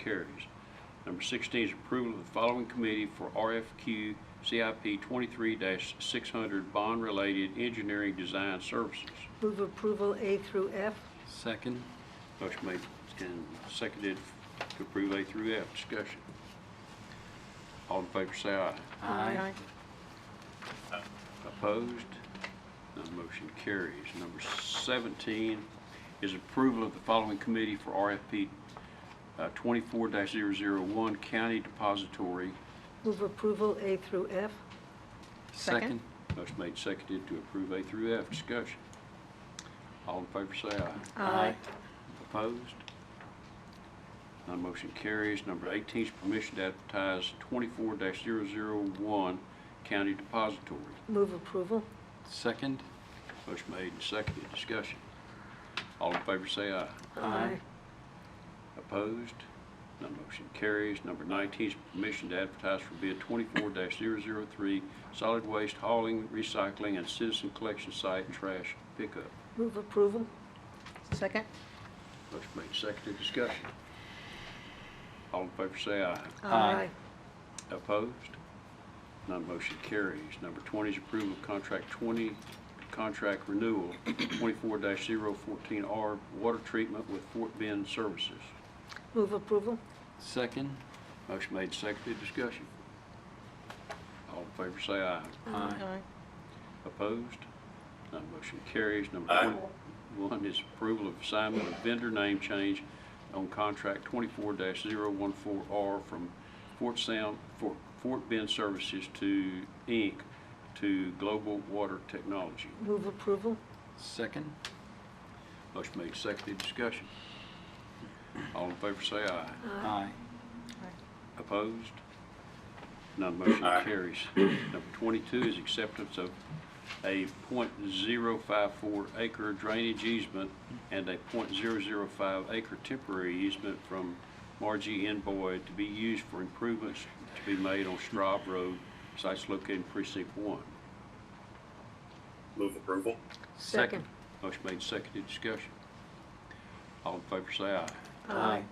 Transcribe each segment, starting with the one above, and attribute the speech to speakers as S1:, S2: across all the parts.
S1: carries. Number 16 is approval of the following committee for RFQ CIP 23-600 Bond-Related Engineering Design Services.
S2: Move approval A through F.
S3: Second.
S1: Motion made and seconded to approve A through F. Discussion. All in favor say aye.
S3: Aye.
S1: Opposed? None motion carries. Number 17 is approval of the following committee for RFP uh, 24-001 County Depository.
S2: Move approval A through F.
S3: Second.
S1: Motion made, seconded to approve A through F. Discussion. All in favor say aye.
S3: Aye.
S1: Opposed? None motion carries. Number 18 is permission to advertise 24-001 County Depository.
S2: Move approval.
S3: Second.
S1: Motion made and seconded. Discussion. All in favor say aye.
S3: Aye.
S1: Opposed? None motion carries. Number 19 is permission to advertise for bid 24-003 solid waste hauling, recycling, and citizen collection site trash pickup.
S2: Move approval.
S4: Second?
S1: Motion made, seconded, discussion. All in favor say aye.
S3: Aye.
S1: Opposed? None motion carries. Number 20 is approval of contract 20, contract renewal 24-014R water treatment with Fort Bend Services.
S2: Move approval.
S3: Second.
S1: Motion made, seconded, discussion. All in favor say aye.
S3: Aye.
S1: Opposed? None motion carries. Number 21 is approval of assignment of vendor name change on contract 24-014R from Fort Sound, Fort Fort Bend Services to Inc. to Global Water Technology.
S2: Move approval.
S3: Second.
S1: Motion made, seconded, discussion. All in favor say aye.
S3: Aye.
S1: Opposed? None motion carries. Number 22 is acceptance of a .054 acre drainage easement and a .005 acre temporary easement from Margie N. Boyd to be used for improvements to be made on Straub Road, sites located in precinct 1.
S5: Move approval.
S3: Second.
S1: Motion made, seconded, discussion. All in favor say aye.
S3: Aye.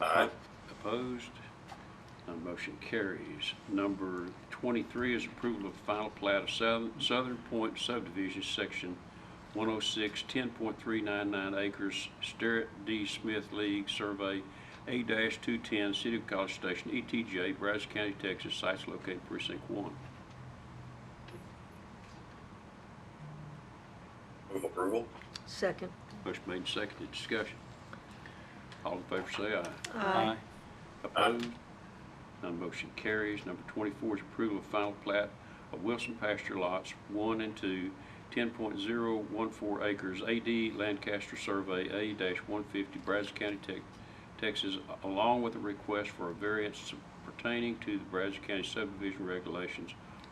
S5: Aye.
S1: Opposed? None motion carries. Number 23 is approval of final plat of Southern Southern Point subdivision, section 106, 10.399 acres, Sterrett D. Smith League Survey, A-210, City of College Station, ETJ, Brazos County, Texas, sites located precinct 1.
S5: Move approval.
S2: Second.
S1: Motion made, and seconded, discussion. All in favor say aye.
S3: Aye.
S1: Opposed? None motion carries. Number 24 is approval of final plat of Wilson pasture lots 1 and 2, 10.014 acres, AD Lancaster Survey A-150, Brazos County, Tex- Texas, along with a request for a variance pertaining to the Brazos County subdivision regulations,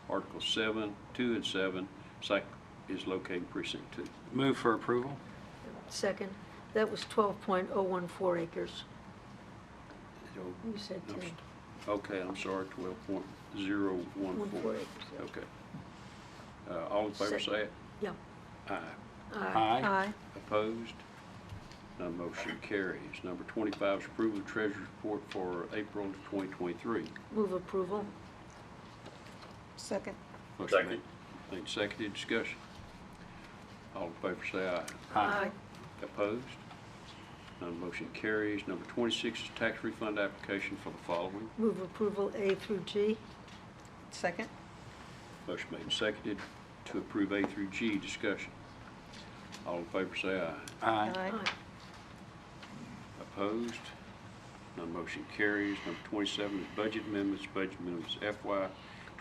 S1: Article 7, 2 and 7, site is located in precinct 2.
S3: Move for approval.
S2: Second. That was 12.014 acres.
S1: So,
S2: You said
S1: I'm
S2: 10.
S1: s- Okay, I'm sorry, 12.014.
S2: acres, yeah.
S1: Okay. Uh, All in favor,
S2: Second.
S1: say it.
S2: Yeah.
S1: Aye.
S3: Aye.
S1: Opposed? None motion carries. Number 25 is approval of treasurer's report for April 2023.
S2: Move approval.
S4: Second?
S1: Motion
S5: Second.
S1: made- Made, seconded, discussion. All in favor, say aye.
S3: Aye.
S1: Opposed? None motion carries. Number 26 is tax refund application for the following.
S2: Move approval A through G.
S4: Second?
S1: Motion made, and seconded, to approve A through G, discussion. All in favor, say aye.
S3: Aye.
S1: Opposed? None motion carries. Number 27 is budget amendments. Budget amendments FY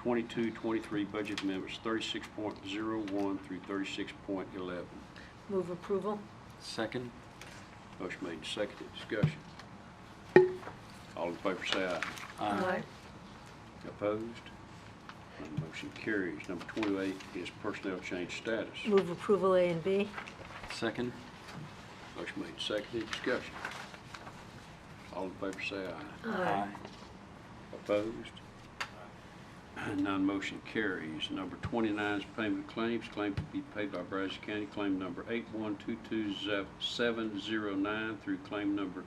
S1: 22-23 budget amendments 36.01 through 36.11.
S2: Move approval.
S3: Second.
S1: Motion made and seconded. Discussion. All in favor say aye.
S3: Aye.
S1: Opposed? None motion carries. Number 28 is personnel change status.
S2: Move approval A and B.
S3: Second.
S1: Motion made and seconded. Discussion. All in favor say aye.
S3: Aye.
S1: Opposed? None motion carries. Number 29 is payment of claims. Claim to be paid by Brazos County, claim number 8122709 through claim number